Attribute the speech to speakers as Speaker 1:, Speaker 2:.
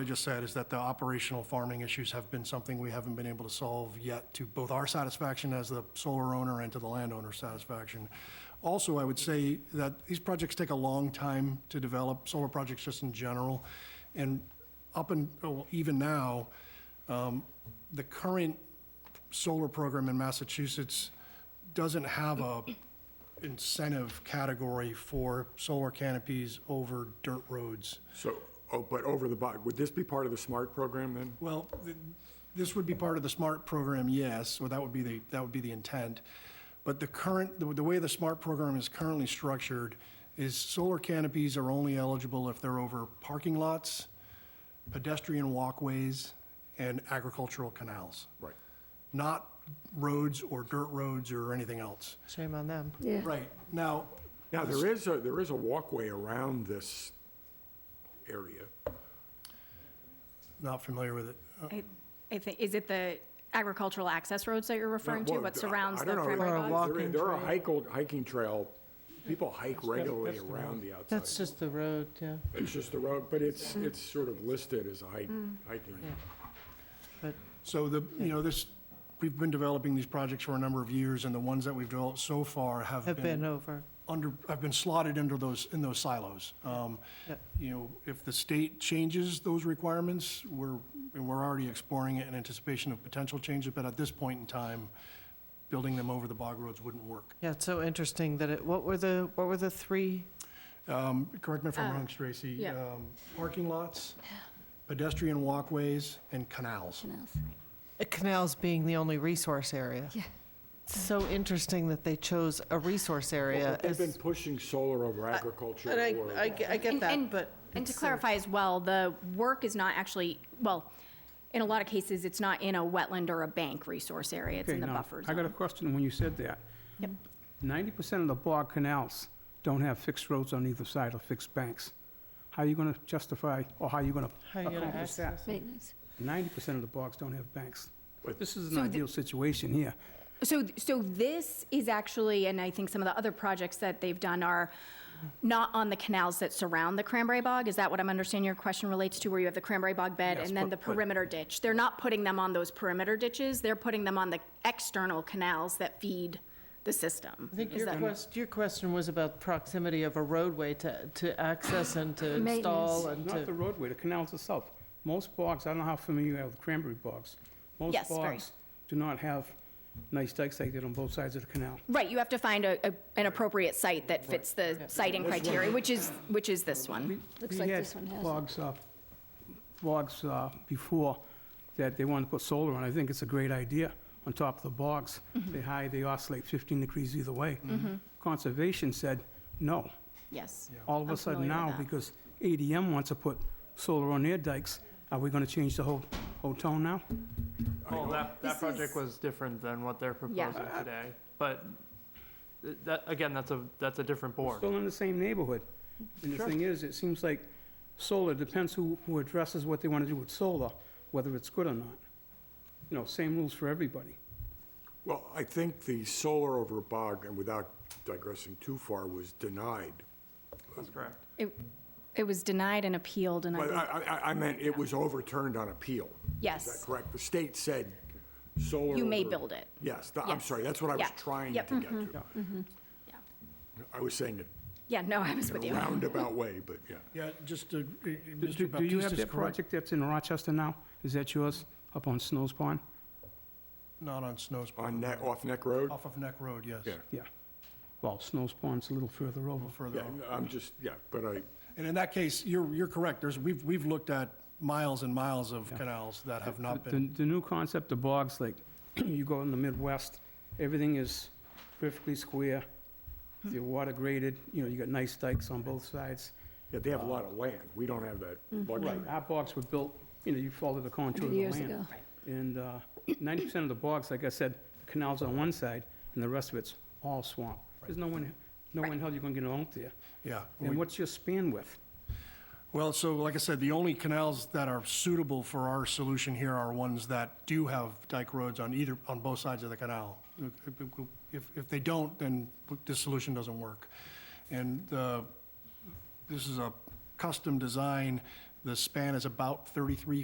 Speaker 1: I just said is that the operational farming issues have been something we haven't been able to solve yet to both our satisfaction as the solar owner and to the landowner's satisfaction. Also, I would say that these projects take a long time to develop, solar projects just in general. And up and, oh, even now, um, the current solar program in Massachusetts doesn't have a incentive category for solar canopies over dirt roads.
Speaker 2: So, oh, but over the bog, would this be part of the SMART program then?
Speaker 1: Well, th- this would be part of the SMART program, yes, or that would be the, that would be the intent. But the current, the the way the SMART program is currently structured is solar canopies are only eligible if they're over parking lots, pedestrian walkways, and agricultural canals,
Speaker 2: Right.
Speaker 1: not roads or dirt roads or anything else.
Speaker 3: Shame on them.
Speaker 4: Yeah,
Speaker 1: Right, now,
Speaker 2: Now, there is a, there is a walkway around this area.
Speaker 1: not familiar with it. Uh,
Speaker 5: I- I think, is it the agricultural access roads that you're referring to,
Speaker 2: Well,
Speaker 5: what
Speaker 2: I-
Speaker 5: surrounds
Speaker 2: I
Speaker 5: the
Speaker 2: don't know.
Speaker 5: primary
Speaker 3: Or a
Speaker 5: roads?
Speaker 3: walk-
Speaker 2: There-
Speaker 3: Walking
Speaker 2: There are
Speaker 3: trail.
Speaker 2: hiking, hiking trail, people hike regularly
Speaker 3: that's the
Speaker 2: around the outside.
Speaker 3: That's just the road, yeah,
Speaker 2: It's just the road, but it's, it's sort of listed as a hike,
Speaker 3: Mm.
Speaker 2: hiking.
Speaker 3: but
Speaker 1: So the, you know, this, we've been developing these projects for a number of years, and the ones that we've developed so far have
Speaker 3: have been over.
Speaker 1: under, I've been slotted under those, in those silos. Um,
Speaker 3: Yep.
Speaker 1: You know, if the state changes those requirements, we're, and we're already exploring it in anticipation of potential changes, but at this point in time, building them over the bog roads wouldn't work.
Speaker 3: Yeah, it's so interesting that it, what were the, what were the three?
Speaker 1: Um, Correct me if I'm
Speaker 5: Uh,
Speaker 1: wrong, Tracy.
Speaker 5: yeah.
Speaker 1: Um, Parking lots, pedestrian walkways, and canals.
Speaker 4: canals.
Speaker 3: Uh, Canals being the only resource area.
Speaker 4: Yeah.
Speaker 3: So interesting that they chose a resource
Speaker 2: Well,
Speaker 3: area.
Speaker 2: but They've been
Speaker 3: as-
Speaker 2: pushing solar over agriculture.
Speaker 3: And I,
Speaker 2: or-
Speaker 3: I ge- I get
Speaker 5: And-
Speaker 3: that,
Speaker 5: and-
Speaker 3: but.
Speaker 5: And
Speaker 2: uh,
Speaker 3: it's
Speaker 5: to
Speaker 3: uh, so-
Speaker 5: clarify as well, the work is not actually, well, in a lot of cases, it's not in a wetland or a bank resource area, it's in
Speaker 6: Okay,
Speaker 5: the
Speaker 6: now,
Speaker 5: buffer
Speaker 6: I got a
Speaker 5: zone.
Speaker 6: question when you said that.
Speaker 5: Yep.
Speaker 6: Ninety percent of the bog canals don't have fixed roads on either side or fixed banks. How are you gonna justify, or how are you gonna
Speaker 3: How you gonna
Speaker 6: accomplish that?
Speaker 3: access it?
Speaker 4: Maintenance.
Speaker 6: Ninety percent of the bogs don't have banks.
Speaker 2: But-
Speaker 6: This is an ideal situation here.
Speaker 5: So, so this is actually, and I think some of the other projects that they've done are not on the canals that surround the cranberry bog, is that what I'm understanding your question relates to, where you have the cranberry bog bed
Speaker 6: Yes,
Speaker 5: and then the
Speaker 6: but- but-
Speaker 5: perimeter ditch? They're not putting them on those perimeter ditches, they're putting them on the external canals that feed the system.
Speaker 3: I think
Speaker 5: Is
Speaker 3: your
Speaker 5: that-
Speaker 3: quest, your question was about proximity of a roadway to, to access and to install and
Speaker 6: Not the
Speaker 3: to.
Speaker 6: roadway, the canals itself. Most bogs, I don't know how familiar you are with cranberry bogs. Most
Speaker 5: Yes, very.
Speaker 6: bogs do not have nice dikes like that on both sides of the canal.
Speaker 5: Right, you have to find a, a- an appropriate site that fits the siting criteria, which is, which is this one.
Speaker 4: Looks like this one
Speaker 6: We
Speaker 4: has
Speaker 6: had
Speaker 4: it.
Speaker 6: logs, uh, logs uh, before that they wanted to put solar on. I think it's a great idea on top of the bogs.
Speaker 4: Mm-hmm.
Speaker 6: They high, they oscillate 15 degrees either way. Conservation said, no.
Speaker 5: Yes.
Speaker 6: All of
Speaker 5: I'm
Speaker 6: a sudden
Speaker 5: familiar with
Speaker 6: now,
Speaker 5: that.
Speaker 6: because ADM wants to put solar on their dikes, are we going to change the whole, whole tone now?
Speaker 7: Well, Oh, that,
Speaker 5: This
Speaker 7: that
Speaker 5: is-
Speaker 7: project was different than what they're proposing today, but th- that, again, that's a, that's a different
Speaker 6: We're
Speaker 7: board.
Speaker 6: Still in the same neighborhood. And the thing is, it seems like solar, depends who, who addresses what they want to do with solar, whether it's good or not. You know, same rules for everybody.
Speaker 2: Well, I think the solar over bog, and without digressing too far, was denied.
Speaker 7: That's correct.
Speaker 5: It, it was denied and appealed, and I,
Speaker 2: But
Speaker 5: think-
Speaker 2: I,
Speaker 3: Mm-hmm.
Speaker 2: I, I meant it was overturned on appeal. Is
Speaker 5: yes,
Speaker 2: that correct? The state said solar.
Speaker 5: you may
Speaker 2: over-
Speaker 5: build it.
Speaker 2: Yes, th- I'm
Speaker 5: Yes.
Speaker 2: sorry, that's what I was
Speaker 5: Yeah.
Speaker 2: trying to
Speaker 5: Yep. Mm-hmm.
Speaker 2: get to.
Speaker 5: Yeah. Mm-hmm.
Speaker 2: I was saying it
Speaker 5: Yeah, no, I was with
Speaker 2: in
Speaker 5: you.
Speaker 2: a roundabout way, but yeah.
Speaker 1: Yeah, just, to- uh, uh,
Speaker 6: Do- Do
Speaker 1: Mr.
Speaker 6: do you have
Speaker 1: Baptista's
Speaker 6: that
Speaker 1: correct,
Speaker 6: project that's in Rochester now? Is that yours, up on Snow's Pond?
Speaker 1: not on Snow's,
Speaker 2: On Neck, off Neck Road?
Speaker 1: off of Neck Road, yes.
Speaker 2: Yeah.
Speaker 6: Yeah. Well, Snow's Pond's a little further over.
Speaker 1: Further
Speaker 2: Yeah,
Speaker 1: on.
Speaker 2: I'm just, yeah, but I,
Speaker 1: And in that case, you're, you're correct. There's, we've, we've looked at miles and miles of canals that have not
Speaker 6: The,
Speaker 1: been,
Speaker 6: the new concept of bogs, like, you go in the Midwest, everything is perfectly square, they're water graded, you know, you got nice dikes on both sides.
Speaker 2: yeah, they have a lot of land. We don't have that
Speaker 5: Mm-hmm.
Speaker 2: luxury.
Speaker 6: Right, our bogs were built, you know, you follow the contour of the
Speaker 4: Years
Speaker 6: land.
Speaker 4: ago.
Speaker 6: And uh, 90% of the bogs, like I said, canals on one side, and the rest of it's all swamp. There's no one, no one hell you're gonna get out there.
Speaker 1: yeah.
Speaker 6: And what's your span width?
Speaker 1: Well, so like I said, the only canals that are suitable for our solution here are ones that do have dike roads on either, on both sides of the canal. If, if they don't, then this solution doesn't work. And uh, this is a custom design The span is about 33